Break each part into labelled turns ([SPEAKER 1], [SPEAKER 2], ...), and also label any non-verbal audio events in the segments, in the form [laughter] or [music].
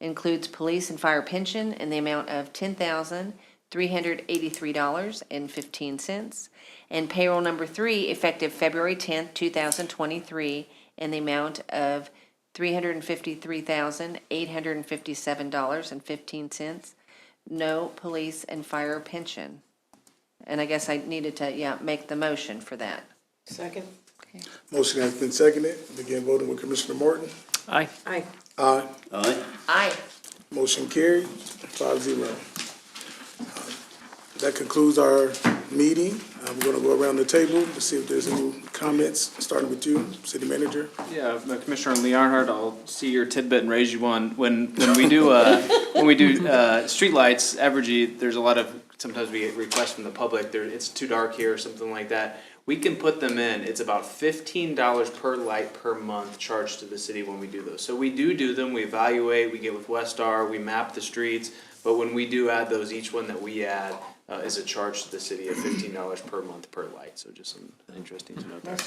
[SPEAKER 1] includes police and fire pension in the amount of ten thousand three hundred eighty-three dollars and fifteen cents. And payroll number three, effective February tenth, two thousand twenty-three, in the amount of three hundred and fifty-three thousand eight hundred and fifty-seven dollars and fifteen cents. No police and fire pension. And I guess I needed to, yeah, make the motion for that.
[SPEAKER 2] Second?
[SPEAKER 3] Motion has been seconded. Begin voting with Commissioner Morton.
[SPEAKER 4] Aye.
[SPEAKER 2] Aye.
[SPEAKER 3] Aye.
[SPEAKER 5] Aye.
[SPEAKER 1] Aye.
[SPEAKER 3] Motion carried, five zero. Uh, That concludes our meeting. Uh, We're gonna go around the table to see if there's any comments, starting with you, city manager.
[SPEAKER 4] Yeah, uh, Commissioner Leonhardt, I'll see your tidbit and raise you one. When, when we do, uh, when we do, uh, streetlights, Evergy, there's a lot of, sometimes we get requests from the public, there, it's too dark here or something like that. We can put them in. It's about fifteen dollars per light per month charged to the city when we do those. So we do do them, we evaluate, we get with Westar, we map the streets. But when we do add those, each one that we add, uh, is a charge to the city of fifteen dollars per month per light. So just some interesting to note there.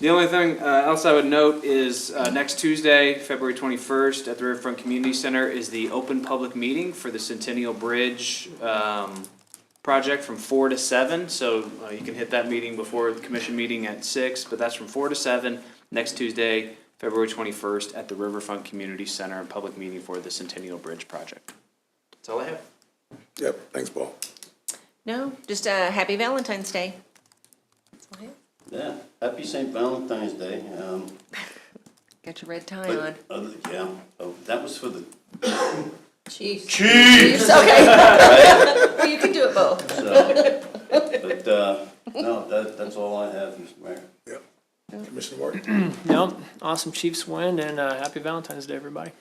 [SPEAKER 4] The only thing uh, else I would note is uh, next Tuesday, February 21st, at the Riverfront Community Center is the open public meeting for the Centennial Bridge um, project from 4 to 7. So uh, you can hit that meeting before the commission meeting at 6, but that's from 4 to 7 next Tuesday, February 21st, at the Riverfront Community Center, a public meeting for the Centennial Bridge project. That's all I have.
[SPEAKER 3] Yep, thanks, Paul.
[SPEAKER 1] No, just, uh, happy Valentine's Day.
[SPEAKER 5] Yeah, happy St. Valentine's Day. Um,
[SPEAKER 1] Got your red tie
[SPEAKER 5] but
[SPEAKER 1] on.
[SPEAKER 5] Other, yeah, oh, that was for the,
[SPEAKER 2] Chief.
[SPEAKER 5] Chief!
[SPEAKER 6] Okay. Well, you can do it both.
[SPEAKER 5] so, but, uh, no, that, that's all I have, Mr. Mayor.
[SPEAKER 3] Yep, Commissioner Morton.
[SPEAKER 7] Nope. Awesome Chiefs win and uh, happy Valentine's Day, everybody.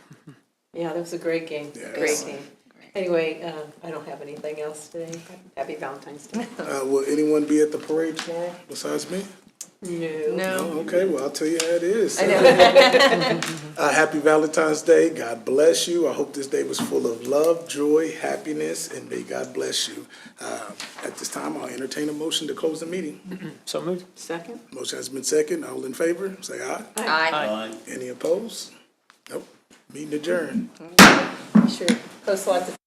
[SPEAKER 2] Yeah, that was a great game.
[SPEAKER 3] Yeah,
[SPEAKER 2] Great
[SPEAKER 3] excellent.
[SPEAKER 2] game. Anyway, um, I don't have anything else today. Happy Valentine's Day.
[SPEAKER 3] Uh, will anyone be at the parade tomorrow besides me?
[SPEAKER 2] [laughs] No.
[SPEAKER 1] No.
[SPEAKER 3] Oh, Okay, well, I'll tell you how it is.
[SPEAKER 1] I know.
[SPEAKER 3] [laughs] Uh, happy Valentine's Day. God bless you. I hope this day was full of love, joy, happiness, and may God bless you. Uh, at this time, I'll entertain a motion to close the meeting.
[SPEAKER 7] So moved.
[SPEAKER 2] Second?
[SPEAKER 3] Motion has been second. All in favor, say aye.
[SPEAKER 1] Aye.
[SPEAKER 5] Aye.
[SPEAKER 3] Any opposed? Nope. Meeting adjourned.
[SPEAKER 2] Sure. Post lots of